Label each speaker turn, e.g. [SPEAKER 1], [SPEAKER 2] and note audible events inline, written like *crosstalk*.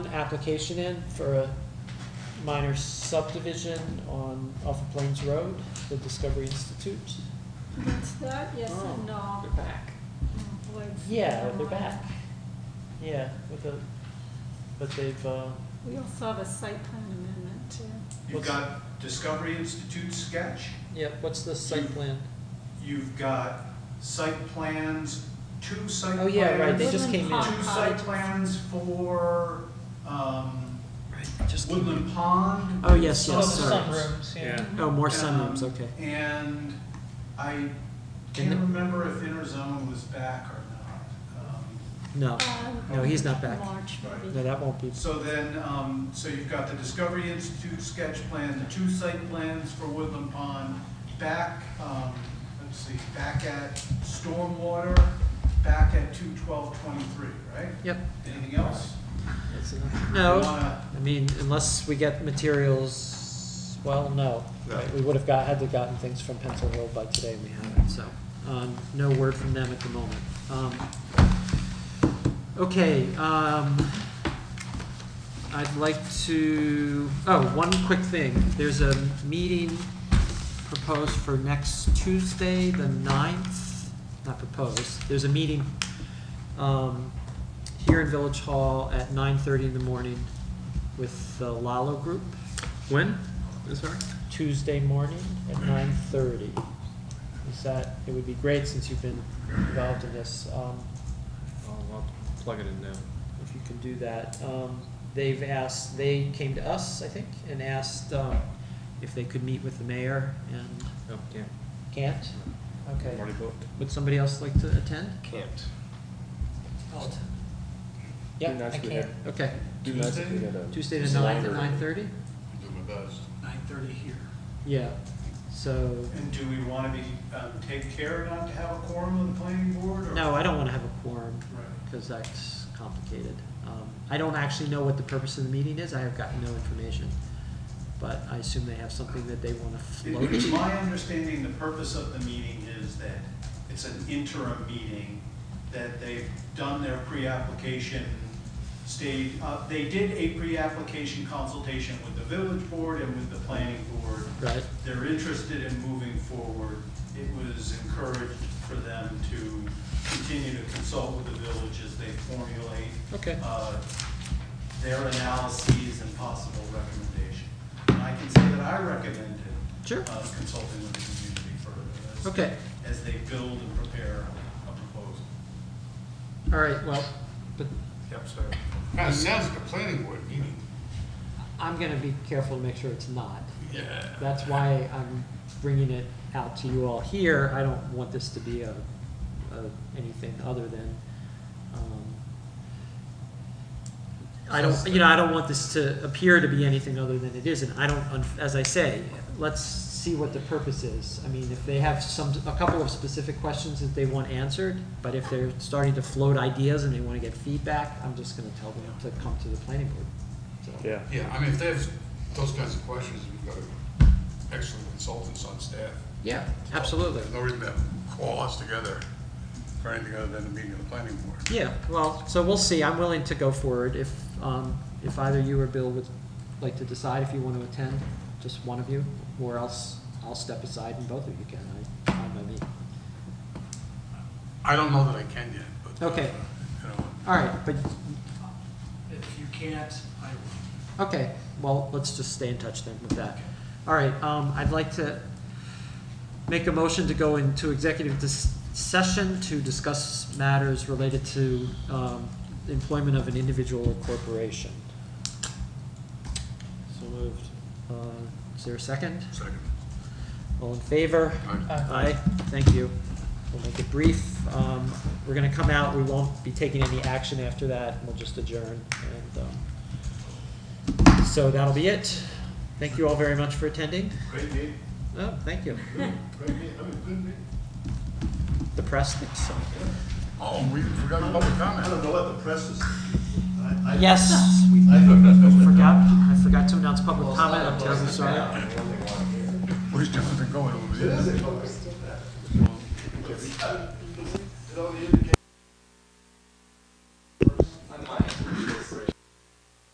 [SPEAKER 1] application in for a minor subdivision on, off of Plains Road, the Discovery Institute.
[SPEAKER 2] What's that? Yes and no.
[SPEAKER 1] They're back.
[SPEAKER 2] Mm, like,
[SPEAKER 1] Oh. Yeah, they're
[SPEAKER 2] um,
[SPEAKER 1] back. Yeah, with the, but they've, uh,
[SPEAKER 2] We also have a site plan amendment too.
[SPEAKER 3] You've got Discovery Institute sketch,
[SPEAKER 1] yeah, what's the site plan?
[SPEAKER 3] you've got site plans, two site
[SPEAKER 1] Oh,
[SPEAKER 3] plans.
[SPEAKER 1] yeah, right, they just
[SPEAKER 2] Woodland
[SPEAKER 1] came in.
[SPEAKER 2] Pond.
[SPEAKER 3] Two site plans for, um, Woodland Pond.
[SPEAKER 1] Oh, yes,
[SPEAKER 3] with
[SPEAKER 1] yes, sorry.
[SPEAKER 3] sunrooms.
[SPEAKER 4] Yeah.
[SPEAKER 2] Uh,
[SPEAKER 1] Oh, more
[SPEAKER 3] Um,
[SPEAKER 1] sunrooms, okay.
[SPEAKER 3] And I
[SPEAKER 1] And
[SPEAKER 3] can't
[SPEAKER 1] the-
[SPEAKER 3] remember if InterZone was back or not. Um,
[SPEAKER 1] No,
[SPEAKER 2] Um,
[SPEAKER 1] No, he's not back.
[SPEAKER 2] March
[SPEAKER 3] Right.
[SPEAKER 1] no,
[SPEAKER 2] maybe.
[SPEAKER 1] that won't be,
[SPEAKER 3] So then, um, so you've got the Discovery Institute sketch plan, the two site plans for Woodland Pond, back, um, let's see, back at Stormwater, back at two twelve twenty-three, right?
[SPEAKER 1] yep,
[SPEAKER 3] Anything else?
[SPEAKER 1] that's enough.
[SPEAKER 3] You
[SPEAKER 1] No,
[SPEAKER 3] wanna-
[SPEAKER 1] I mean, unless we get materials, well, no.
[SPEAKER 4] No.
[SPEAKER 1] Right, We would have got, had to gotten things from Pencil Hill by today, we haven't, so, um, no word from them at the moment. Um, Okay, um, I'd like to, oh, one quick thing, there's a meeting proposed for next Tuesday, the ninth, not proposed, there's a meeting, um, here in Village Hall at nine thirty in the morning with the Lalo Group,
[SPEAKER 4] When? I'm Sorry?
[SPEAKER 1] Tuesday morning at nine thirty. Is that, it would be great since you've been involved in this, um,
[SPEAKER 4] Oh, I'll plug it in now.
[SPEAKER 1] if you can do that. Um, they've asked, they came to us, I think, and asked, um, if they could meet with the mayor and
[SPEAKER 4] Oh, yeah.
[SPEAKER 1] can't? Okay.
[SPEAKER 4] Already booked.
[SPEAKER 1] Would somebody else like to attend?
[SPEAKER 4] Can't.
[SPEAKER 1] Yeah,
[SPEAKER 4] Be nice
[SPEAKER 1] I
[SPEAKER 4] if we had-
[SPEAKER 1] can't. Okay, Tuesday the
[SPEAKER 5] It's
[SPEAKER 1] ninth at
[SPEAKER 5] library.
[SPEAKER 1] nine thirty?
[SPEAKER 5] Do my best.
[SPEAKER 6] Nine thirty here.
[SPEAKER 1] Yeah, so,
[SPEAKER 3] And do we wanna be, um, take care not to have a quorum on the planning board, or?
[SPEAKER 1] no, I don't wanna have a quorum,
[SPEAKER 3] Right.
[SPEAKER 1] cause that's complicated. Um, I don't actually know what the purpose of the meeting is, I have gotten no information. But I assume they have something that they wanna float.
[SPEAKER 3] It- It's my understanding, the purpose of the meeting is that it's an interim meeting, that they've done their pre-application stage. Uh, They did a pre-application consultation with the village board and with the planning board.
[SPEAKER 1] Right,
[SPEAKER 3] They're interested in moving forward. It was encouraged for them to continue to consult with the village as they formulate
[SPEAKER 1] okay.
[SPEAKER 3] uh, their analyses and possible recommendation. And I can say that I recommended
[SPEAKER 1] Sure.
[SPEAKER 3] uh, consulting with the community further as-
[SPEAKER 1] Okay.
[SPEAKER 3] as they build and prepare a proposal.
[SPEAKER 1] All right, well, but
[SPEAKER 3] Yep, sir.
[SPEAKER 5] Kind of sounds like a planning board meeting.
[SPEAKER 1] I'm gonna be careful to make sure it's not.
[SPEAKER 5] Yeah.
[SPEAKER 1] That's why I'm bringing it out to you all here. I don't want this to be a, a, anything other than, um, I don't, you know, I don't want this to appear to be anything other than it is, and I don't, un- as I say, let's see what the purpose is. I mean, if they have some, a couple of specific questions that they want answered, but if they're starting to float ideas and they wanna get feedback, I'm just gonna tell them to come to the planning board, so.
[SPEAKER 4] Yeah.
[SPEAKER 5] Yeah, I mean, if they have those kinds of questions, we've got excellent consultants on staff.
[SPEAKER 1] Yeah, absolutely.
[SPEAKER 5] There's no reason to have call us together for anything other than a meeting of the planning board.
[SPEAKER 1] Yeah, well, so we'll see. I'm willing to go forward if, um, if either you or Bill would like to decide if you want to attend, just one of you, or else I'll step aside and both of you can. I, I know me.
[SPEAKER 5] I don't know that I can yet, but. uh,
[SPEAKER 1] Okay.
[SPEAKER 5] You know,
[SPEAKER 1] All right, but,
[SPEAKER 6] If you can't, I will.
[SPEAKER 1] okay, well, let's just stay in touch then with that. All right, um, I'd like to make a motion to go into executive dis- session to discuss matters related to, um, employment of an individual or corporation. So moved. Uh, is there a second?
[SPEAKER 5] second.
[SPEAKER 1] All in favor?
[SPEAKER 5] Aye.
[SPEAKER 1] Aye, thank you. We'll make it brief. Um, we're gonna come out, we won't be taking any action after that, and we'll just adjourn and, um, so that'll be it. Thank you all very much for attending.
[SPEAKER 3] Great meeting,
[SPEAKER 1] Oh, thank you.
[SPEAKER 3] great meeting, I mean, good meeting.
[SPEAKER 1] The press thinks so.
[SPEAKER 5] Oh, we forgot public
[SPEAKER 3] I
[SPEAKER 5] comment.
[SPEAKER 3] don't know what the press is. I- I-
[SPEAKER 1] Yes, *laughs* we
[SPEAKER 3] I don't know.
[SPEAKER 1] forgot, I forgot to announce public comment, I'm terribly sorry.
[SPEAKER 5] Where's Jonathan going over there?
[SPEAKER 3] It is a public. Well, it's- It only indicates